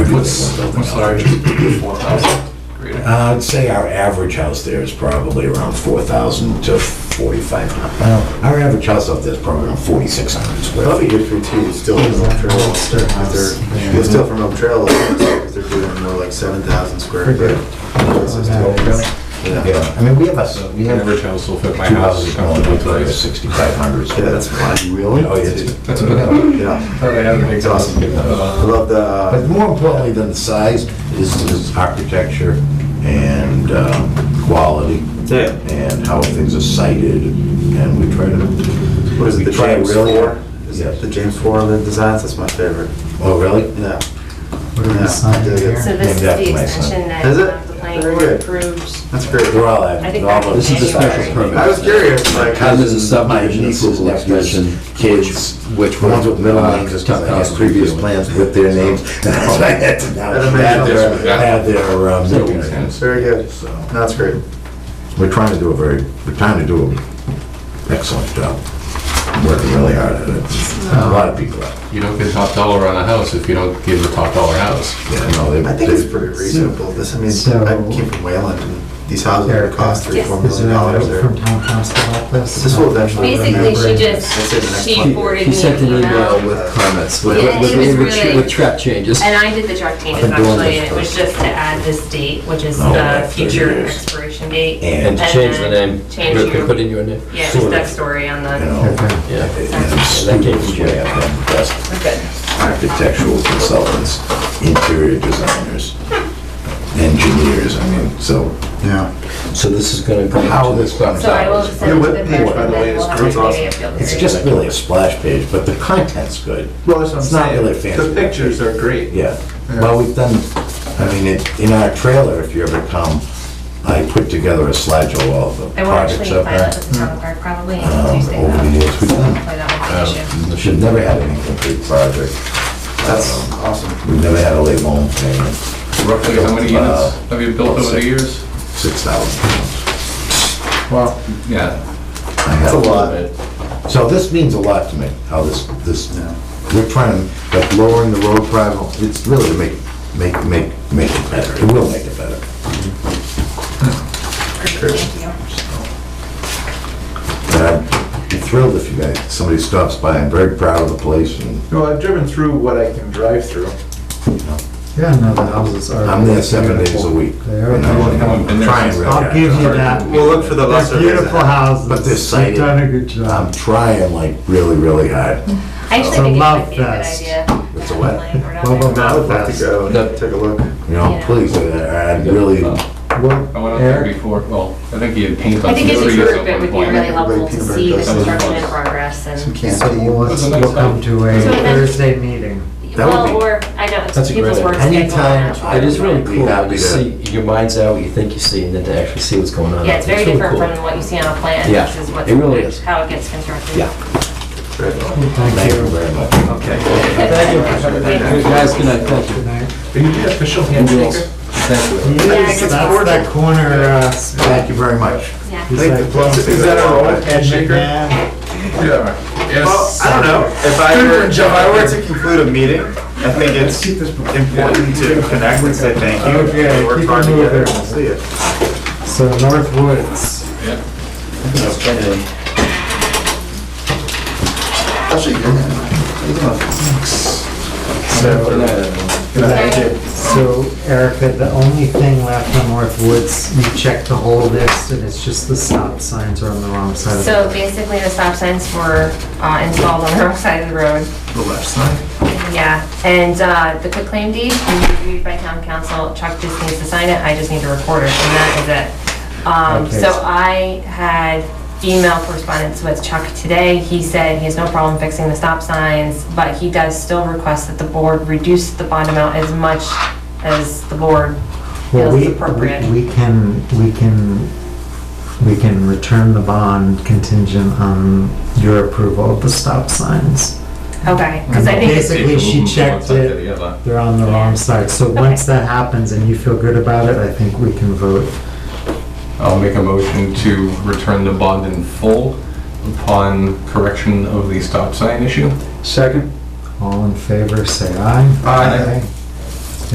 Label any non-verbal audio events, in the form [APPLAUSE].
What's, what's large? Four thousand. Great. Uh, I'd say our average house there is probably around four thousand to forty-five hundred. Well, our average house up there is probably around forty-six hundred square Probably feet. good for two, it's still from Elm Trail, they're, it's still from Elm Trail, if they're doing more like seven thousand square foot. This is still- Yeah, Oh, Yeah, I mean, we have a, we have Average two house will fit my house houses is going comfortably up for placed. sixty-five hundred. Yeah, that's why, really? Oh, it's, That's about, Yeah, probably have a big it's awesome. I love the, but uh, more importantly than the size is, is architecture and, um, quality yeah, and how things are sited and we try to, what is it, the We try James really- Four? Is Yes. it the James Four on the designs? That's my favorite, oh, really? yeah. What are Yeah, we signing I dig it. here? So this is Maybe that's the my son. extension that Is it? um, the planning Very board good. approved. That's great. They're all, I think all of This is a special January. permit. I was curious, like, how This does is a subdivision nieces, approval nephews, extension. Kids, which ones with middle uh, names, just because I had previous plans with their names. [LAUGHS] And I had to now add their, add their, um, middle names. Very good, So, No, that's great. We're trying to do a very, we're trying to do an excellent job. Working really hard at it. A lot of people out You don't get top dollar on a house if you don't give a top dollar house. there, you know, they. I think it's pretty reasonable, this, I mean, So- I came from Wayland, and these houses would cost three, Yes. four Is million there a dollars note there. from town council about this? This will eventually. Basically, That's she it, the next just, she one. forwarded He me sent an an email email. with comments, with, Yeah, with, it was with, with, really- with trap changes. And I did the track changes I've been doing actually, this and it was for- just to add this date, which is Oh, the like thirty future years. expiration date. And to change the then name. Change You can your, Put in your name. yeah, just that story on You the, know, Okay. Yeah. it's way up there, the best good. architectural consultants, interior designers, engineers, I mean, so Yeah. So this is gonna go. how into- this comes So I will out. just send it Your to the webpage, clerk by and the way, then we'll is have great. a It's awesome. committee appeal It's period. just really a splash page, but the content's good. Well, that's what It's not really fancy. The pictures are great. Yeah, well, we've done, I mean, it- in our trailer, if you ever come, I put together a slideshow of all the I will actually projects up file it there. with the town clerk probably Um, on Tuesday. Over the though. years, we've done, Hopefully that won't be an issue. Um, we should never had an incomplete project, Um, That's awesome. we've never had a late loan payment, Roughly how many units have you built over the years? six thousand pounds. Well. Yeah. That's a lot. So this means a lot to me, how this, this, we're trying, to like lowering the road travel, it's really to make, make, make, make it better, it will make it better. And I'd be thrilled if you guys, somebody stops by, I'm very proud of the place, and Well, I've driven through what I can drive through. Yeah, no, the houses are. I'm there seven days a week. They are. And I'm- I've been I'm there trying since- really I'll hard. give you that. We'll look for the lesser. They're beautiful houses. But they're You've done a good I'm job. trying like really, really hard. I actually So think it Love might be a good Fest. idea. It's a what? Like, we're not there. Love Fest. I would like to go and take a look. You know, Yeah. please, I- I'd really, I What, went up there Eric? before, well, I think he had paint on. I think some as a trees group, at it one would be point. really helpful to Everybody see the peanut butter construction in does. progress and, Um, So let's, That's a nice we'll come to a So then- Thursday meeting. That would be- well, or, I know, it's That's a people's great work idea. schedule. and Anytime that's I- why- It is really Be cool happy when you to- see, your mind's out, what you think you see, and then to actually see what's going on. Yeah, it's very really different cool. from what you see on a plan, Yeah, which is what's, it really act- is. how it gets constructed. Yeah. thank you very much. Good guys, good night, thank you. Good night. Are you the official handrails? Thank you. I Yes, guess that's we're- that corner, uh, Thank you very much. Yeah. he's Like the like. plums- Is that a roll? Ed Shaker? McMahon. Yeah. Well, Yes. I don't know. If I were, if I were to conclude a meeting, I think it's important to connect and say thank you. Okay, We worked keep hard it together. and We'll moving. see you. So North Woods. So, so Erica, the only thing left on North Woods, you checked the whole list and it's just the stop signs are on the wrong side of the So basically, the stop signs were uh, installed on the [LAUGHS] wrong side of the road. The left side. Yeah, and uh, the quitclaim deed, can be reviewed by town council, Chuck just needs to sign it, I just need to record it, and that is it. Um, Okay. So I had email correspondence with Chuck today, he said he has no problem fixing the stop signs, but he does still request that the board reduce the bond amount as much as the board Well, feels we, is appropriate. we we can, we can, we can return the bond contingent on your approval of the stop signs. Okay, because I think, it's- Basically, she checked it. They're on the wrong side. So once that happens and you feel good about it, I think we can vote. I'll make a motion to return the bond in full upon correction of the stop sign issue. Second. All in favor, say aye. Aye.